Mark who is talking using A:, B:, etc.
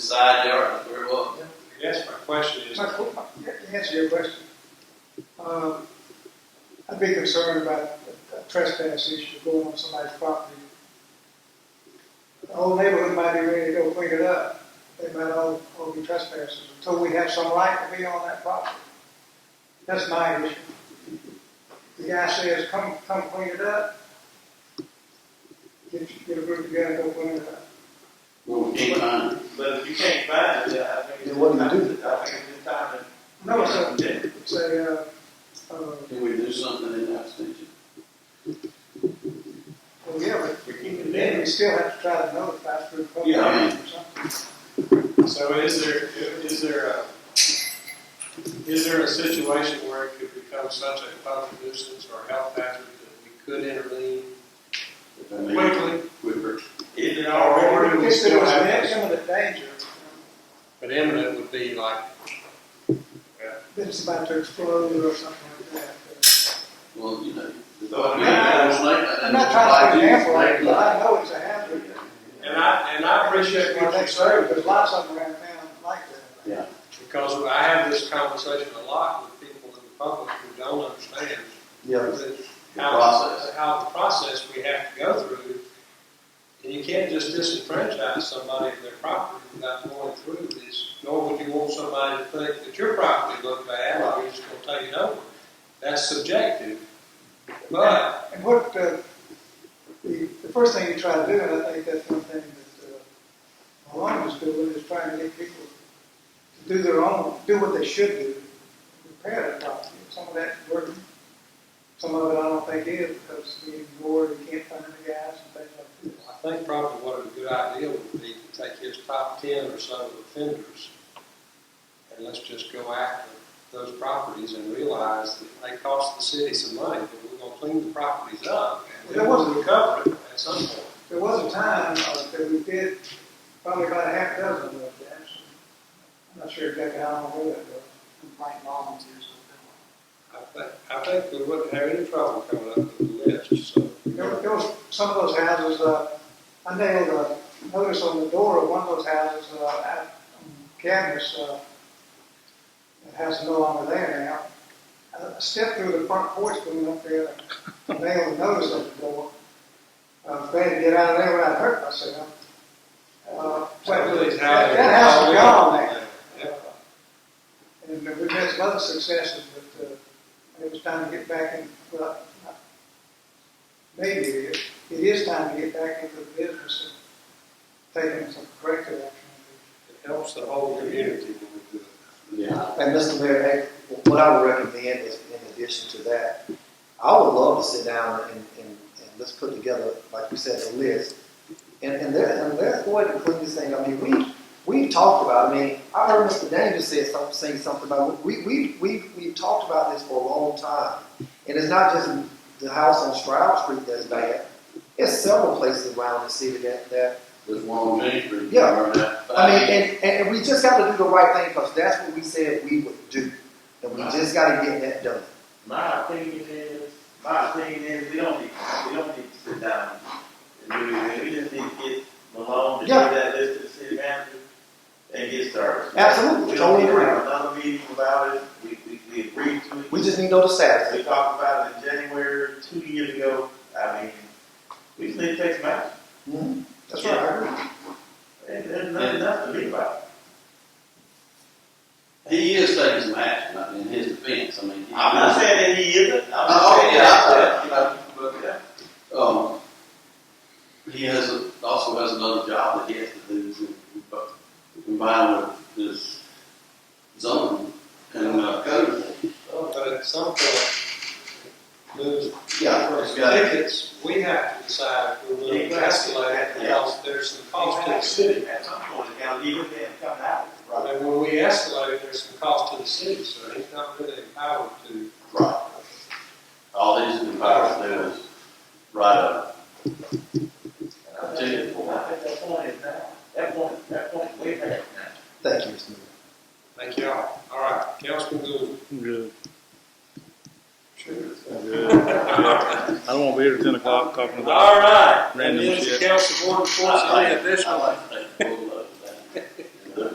A: decide they are very well.
B: Yes, my question is,
C: My, to answer your question, um, I'd be concerned about a trespass issue going on somebody's property. The whole neighborhood might be ready to go clean it up, they might all, all be trespassers, until we have some right to be on that property. That's my issue. The guy says, come, come clean it up. Get, get a group together, go clean it up.
A: Well, we can't find it.
B: but if you can't find it, yeah, I think.
D: Then what do you
B: do? I think it's time to.
C: No, it's a, it's a, uh, uh,
A: Can we do something in that station?
C: Well, yeah, but
B: We keep it
C: then we
B: in.
C: still have to try to notify through public
B: Yeah,
A: I
C: notice
A: mean-
C: or something.
B: So is there, is there a, is there a situation where it could become such a public nuisance or health hazard that we could intervene
A: If I may,
B: quickly?
A: quicker.
B: Is it
C: Or
B: already?
C: if
B: We
C: there
B: still
C: was
B: have
C: an
B: this.
C: imminent danger,
B: But imminent would be like,
C: that it's about to explode or something like that.
A: Well, you know.
B: So,
C: I'm not trying to be careful, but I know it's a hazard.
B: and I, and I appreciate what you're
C: Next
B: saying,
C: serve, there's lots of them around town like that.
A: Yeah.
B: because I have this conversation a lot with people in the public who don't understand
D: Yeah,
B: the
A: The
B: how,
A: process.
B: how the process we have to go through. And you can't just disenfranchise somebody of their property without going through this, nor would you want somebody to think that your property looked bad, or you're just gonna take it over. That's subjective, but,
C: And what, uh, the, the first thing you try to do, and I think that's one thing that, uh, Malone was doing, is trying to get people to do their own, do what they should do, repair their property. Some of that's working, some of it I don't think is, because we ignored, we can't find the guys and things like
B: I think probably what a good idea would be to take his top ten or so of offenders, and let's just go after those properties and realize that they cost the city some money, but we're gonna clean the properties up, and then we'll recover it at some point.
C: that. There was a time uh, that we did probably about a half dozen of those guys. I'm not sure exactly how long ago that was.
E: complaint volunteers with them.
B: I think, I think we wouldn't have any trouble coming up with a list, so.
C: There were, there was some of those houses, uh, I nailed a notice uh, on the door of one of those houses, uh, out on Cadmus, uh, that house is no longer there now. I stepped through the front porch going up there, and nailed a notice on the door. I was glad to get out of there when I hurt myself. Uh, but that, that house is gone now. And we've had some other successes, but uh, it was time to get back in, well, not- maybe it is- it is time to get back into the business of taking some corrective action.
B: It helps the whole community when we do
A: Yeah.
D: and Mr. Mayor, I- what I would recommend is, in addition to that, I would love to sit down and, and, and let's put together, like you said, a list. And, and there, and there's a way to clean this thing, I mean, we, we talked about, I mean, I heard Mr. Daniel say something, saying something about, we, we, we, we've talked about this for a long time. And it's not just the house on Stroud Street that's bad, it's several places around the city that, that
A: There's one on Main Street.
D: Yeah.
A: Or that
D: I mean,
A: five.
D: and, and, and we just got to do the right thing because that's what we said we would do. And we just got to get that done.
F: My opinion is, my opinion is, we don't need, we don't need to sit down and do anything. We just need to get Malone to give
D: Yeah.
F: that list to the city manager and get started.
D: Absolutely,
F: We don't
D: totally
F: need to
D: agree.
F: have another meeting about it. We, we, we agreed to it.
D: We just need those status.
F: We talked about it in January, two years ago. I mean, we just need to take some action.
D: Mhm. That's right. I agree.
F: There's, there's nothing, nothing to be about.
A: He is taking some action, I mean, in his defense, I mean. he-
F: I'm not saying that he isn't. I'm
A: Oh,
F: not saying
A: yeah,
F: that.
A: I
F: uh,
A: said, Um, he has, a- also has another job that he has to do, so, combined with his zone and, uh, code.
B: it. But at some point, those
A: Yeah, it's got-
B: tickets, we have to decide if we're going to escalate, because there's some
F: oh,
B: cost to the city.
F: At some point, the county, even then, coming out.
B: And when we escalate, there's some cost to the city, so he's not really empowered to.
A: Right. All these employees do is write a
F: I think that point is now, that point, that point is way back now.
D: Thank you, Mr. Mayor.
B: Thank y'all. All right, Councilman Gould.
G: Good.
B: Sure.
G: Good. I don't want to be here at ten o'clock talking about.
B: All right.
G: Randy,
B: And this is
G: yes.
B: council board reports, any additional
A: I like to take full